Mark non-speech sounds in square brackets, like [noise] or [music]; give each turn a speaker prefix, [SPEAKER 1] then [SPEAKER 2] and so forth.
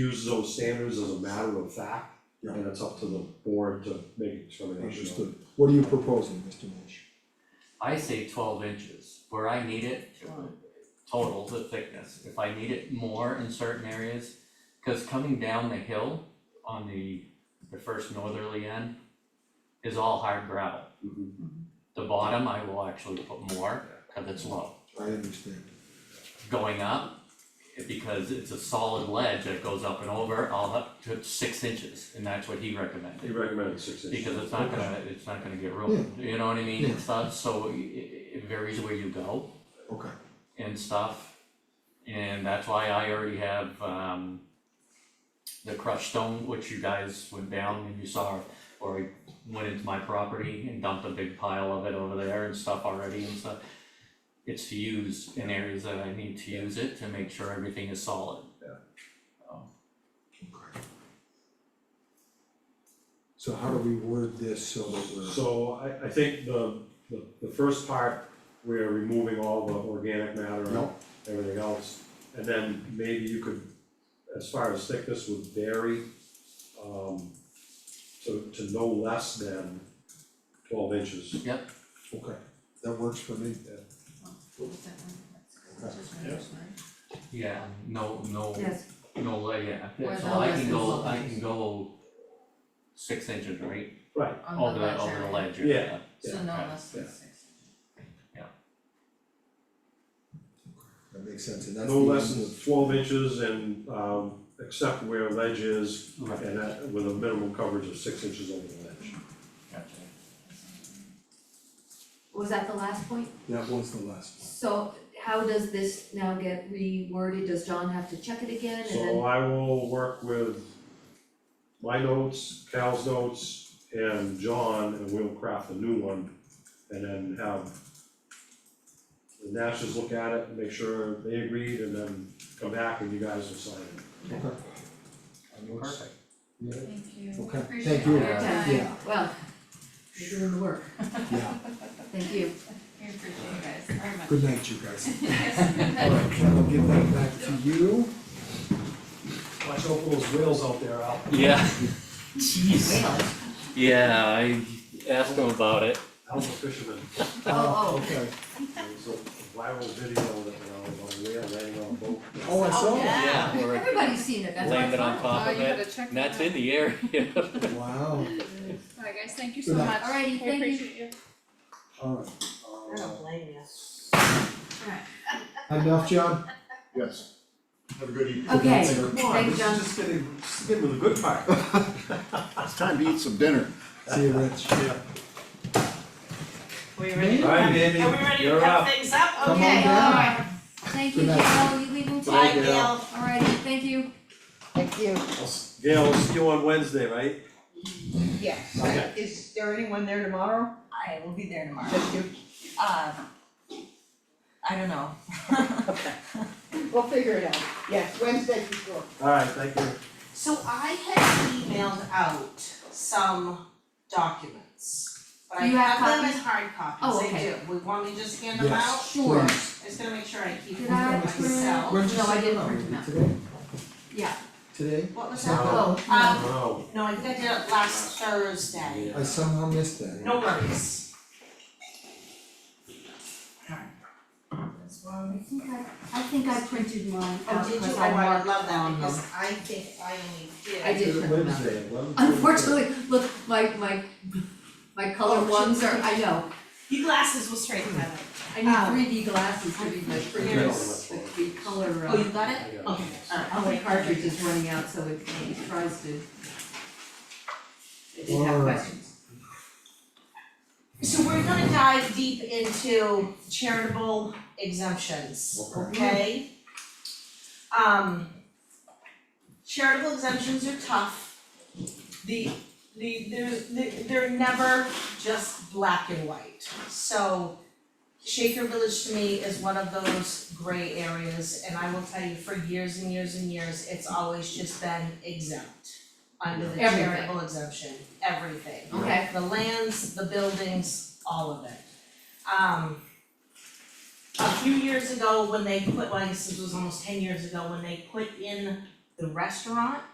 [SPEAKER 1] use those standards as a matter of fact,
[SPEAKER 2] Yeah.
[SPEAKER 1] and it's up to the board to make a determination on.
[SPEAKER 2] Understood. What are you proposing, Mr. Nash?
[SPEAKER 3] I say twelve inches, where I need it, total, the thickness, if I need it more in certain areas. Cause coming down the hill on the, the first northerly end is all hard gravel.
[SPEAKER 1] Mhm.
[SPEAKER 3] The bottom, I will actually put more, cause it's low.
[SPEAKER 2] I understand.
[SPEAKER 3] Going up, because it's a solid ledge that goes up and over, I'll up to six inches, and that's what he recommended.
[SPEAKER 1] He recommended six inches.
[SPEAKER 3] Because it's not gonna, it's not gonna get ruined, you know what I mean,
[SPEAKER 2] Yeah.
[SPEAKER 3] and stuff, so it it varies where you go
[SPEAKER 2] Okay,
[SPEAKER 3] and stuff. And that's why I already have um the crushed stone, which you guys went down and you saw, or I went into my property and dumped a big pile of it over there and stuff already and stuff. It's to use in areas that I need to use it to make sure everything is solid.
[SPEAKER 2] okay. So how do we word this so that we're,
[SPEAKER 1] So I I think the the the first part, we're removing all the organic matter and
[SPEAKER 2] no,
[SPEAKER 1] everything else. And then maybe you could, as far as thickness would vary, um to to no less than twelve inches.
[SPEAKER 2] okay, that works for me.
[SPEAKER 4] What was that one? That's good.
[SPEAKER 1] Yeah.
[SPEAKER 4] That's right.
[SPEAKER 3] Yeah, no, no,
[SPEAKER 4] Yes,
[SPEAKER 3] no, uh, yeah,
[SPEAKER 4] Or
[SPEAKER 3] so
[SPEAKER 4] no
[SPEAKER 3] I
[SPEAKER 4] less
[SPEAKER 3] can
[SPEAKER 4] than
[SPEAKER 3] go,
[SPEAKER 4] twelve
[SPEAKER 3] I can go six inches, right,
[SPEAKER 1] Right,
[SPEAKER 4] on
[SPEAKER 3] over
[SPEAKER 4] the
[SPEAKER 3] the,
[SPEAKER 4] ledge
[SPEAKER 3] over the
[SPEAKER 4] area.
[SPEAKER 3] ledge,
[SPEAKER 1] Yeah.
[SPEAKER 3] yeah,
[SPEAKER 4] So no
[SPEAKER 3] Yeah.
[SPEAKER 4] less than
[SPEAKER 1] Yeah.
[SPEAKER 4] six.
[SPEAKER 2] That makes sense, and that's the
[SPEAKER 1] no
[SPEAKER 2] end
[SPEAKER 1] less than
[SPEAKER 2] of-
[SPEAKER 1] twelve inches and um except where ledge is
[SPEAKER 3] right,
[SPEAKER 1] and that with a minimum coverage of six inches over the ledge.
[SPEAKER 3] gotcha.
[SPEAKER 5] Was that the last point?
[SPEAKER 2] That was the last one.
[SPEAKER 5] So how does this now get reworded? Does John have to check it again and
[SPEAKER 1] So
[SPEAKER 5] then,
[SPEAKER 1] I will work with my notes, Cal's notes, and John, and we'll craft a new one, and then have the Nashes look at it, make sure they agreed, and then come back and you guys will sign it.
[SPEAKER 2] Okay. That works.
[SPEAKER 3] Perfect.
[SPEAKER 2] Yeah,
[SPEAKER 4] Thank you.
[SPEAKER 2] okay,
[SPEAKER 4] Appreciate
[SPEAKER 2] thank you.
[SPEAKER 4] your
[SPEAKER 3] Yeah.
[SPEAKER 4] time.
[SPEAKER 2] Yeah,
[SPEAKER 5] well, you're doing the work,
[SPEAKER 2] yeah,
[SPEAKER 5] thank you.
[SPEAKER 4] We appreciate you guys very much.
[SPEAKER 2] good night, you guys.
[SPEAKER 5] [laughs]
[SPEAKER 4] Yes, good night. [laughs]
[SPEAKER 2] Alright, I'll give that back to you.
[SPEAKER 6] Watch out for those whales out there, Al.
[SPEAKER 3] Yeah. Jeez.
[SPEAKER 5] Whales.
[SPEAKER 3] [laughs] Yeah, I asked him about it.
[SPEAKER 1] Al's a [laughs] fisherman,
[SPEAKER 5] Oh, oh.
[SPEAKER 2] Uh, Okay,
[SPEAKER 1] there was a viral video that went out of a whale landing on a boat.
[SPEAKER 2] oh, I saw that,
[SPEAKER 3] Yeah,
[SPEAKER 5] Yeah,
[SPEAKER 3] we're-
[SPEAKER 5] everybody's seen it, that's why it's
[SPEAKER 3] Landed on
[SPEAKER 5] fun.
[SPEAKER 3] top
[SPEAKER 7] Oh,
[SPEAKER 3] of
[SPEAKER 7] you
[SPEAKER 3] it,
[SPEAKER 7] gotta check
[SPEAKER 3] and
[SPEAKER 7] that
[SPEAKER 3] that's in the area. [laughs]
[SPEAKER 2] wow,
[SPEAKER 7] Alright guys, thank you
[SPEAKER 2] Good
[SPEAKER 7] so
[SPEAKER 2] night.
[SPEAKER 7] much.
[SPEAKER 5] Alrighty,
[SPEAKER 7] We
[SPEAKER 5] thank you.
[SPEAKER 7] appreciate you.
[SPEAKER 2] alright.
[SPEAKER 4] I don't blame you.
[SPEAKER 2] Enough, John?
[SPEAKER 6] Yes. Have a good evening.
[SPEAKER 5] Okay,
[SPEAKER 2] Good night, sir.
[SPEAKER 5] thanks, John.
[SPEAKER 6] Just getting, just getting to the
[SPEAKER 1] [laughs]
[SPEAKER 6] good part. It's time to eat some dinner.
[SPEAKER 2] See you, Rich.
[SPEAKER 4] Are we ready?
[SPEAKER 1] Alright, Andy,
[SPEAKER 4] Are we ready to
[SPEAKER 1] you're
[SPEAKER 4] cut
[SPEAKER 1] up.
[SPEAKER 4] things up?
[SPEAKER 2] Come on
[SPEAKER 4] Okay,
[SPEAKER 2] down.
[SPEAKER 4] alright.
[SPEAKER 5] Thank you,
[SPEAKER 2] Good night.
[SPEAKER 5] Gail, you leaving too?
[SPEAKER 4] Bye,
[SPEAKER 6] Gail.
[SPEAKER 4] Gail.
[SPEAKER 5] Alrighty, thank you.
[SPEAKER 8] Thank you.
[SPEAKER 1] I'll s- Gail, we'll see you on Wednesday, right?
[SPEAKER 8] Yes,
[SPEAKER 1] Okay.
[SPEAKER 8] is there anyone there tomorrow?
[SPEAKER 4] I will be there tomorrow.
[SPEAKER 8] Just you?
[SPEAKER 4] Uh, I don't know.
[SPEAKER 8] We'll figure it out. Yes, Wednesday for sure.
[SPEAKER 1] Alright, thank you.
[SPEAKER 9] So I had emailed out some documents, but I
[SPEAKER 5] You have
[SPEAKER 9] have them
[SPEAKER 5] copies?
[SPEAKER 9] as hard copies,
[SPEAKER 5] Oh,
[SPEAKER 9] I do.
[SPEAKER 5] okay.
[SPEAKER 9] We want me to just hand them out?
[SPEAKER 2] Yes.
[SPEAKER 5] Sure,
[SPEAKER 2] Please.
[SPEAKER 9] I just gotta make sure I keep
[SPEAKER 5] Did
[SPEAKER 9] them
[SPEAKER 5] I
[SPEAKER 9] for
[SPEAKER 5] print-
[SPEAKER 9] myself.
[SPEAKER 2] Where'd you
[SPEAKER 5] No, I
[SPEAKER 2] send
[SPEAKER 5] didn't
[SPEAKER 2] them?
[SPEAKER 5] print them out.
[SPEAKER 2] Today?
[SPEAKER 5] yeah,
[SPEAKER 2] Today?
[SPEAKER 9] What was
[SPEAKER 2] No.
[SPEAKER 9] that?
[SPEAKER 5] oh,
[SPEAKER 9] Um,
[SPEAKER 1] Oh,
[SPEAKER 9] No, I think I did it last Thursday,
[SPEAKER 2] I somehow missed that.
[SPEAKER 9] no worries. Alright. This
[SPEAKER 5] I
[SPEAKER 9] one.
[SPEAKER 5] think I, I think I printed mine
[SPEAKER 9] Oh,
[SPEAKER 5] out
[SPEAKER 9] did you,
[SPEAKER 5] because
[SPEAKER 9] oh,
[SPEAKER 5] I
[SPEAKER 9] I would
[SPEAKER 5] marked
[SPEAKER 9] love that
[SPEAKER 5] down them.
[SPEAKER 9] because I think I only did.
[SPEAKER 5] I did print them out.
[SPEAKER 2] Wednesday, eleven.
[SPEAKER 5] Unfortunately, look, my, my, my color ones are, I know,
[SPEAKER 9] Your glasses will straighten that out.
[SPEAKER 5] I
[SPEAKER 9] Um,
[SPEAKER 5] need three D glasses to read my printers,
[SPEAKER 1] Yes.
[SPEAKER 5] the, the color, uh,
[SPEAKER 9] Oh, you got it?
[SPEAKER 1] yeah.
[SPEAKER 9] Okay, alright.
[SPEAKER 5] how my cartridge is running out, so it it tries to. It did have
[SPEAKER 2] Alright.
[SPEAKER 5] questions.
[SPEAKER 9] So we're gonna dive deep into charitable exemptions, okay? Um, charitable exemptions are tough. The, the, they're, they're never just black and white. So Shaker Village to me is one of those gray areas, and I will tell you, for years and years and years, it's always just been exempt under the
[SPEAKER 5] Everything.
[SPEAKER 9] charitable exemption, everything.
[SPEAKER 5] Okay,
[SPEAKER 9] The lands, the buildings, all of it. Um. A few years ago, when they put, well, I guess this was almost ten years ago, when they put in the restaurant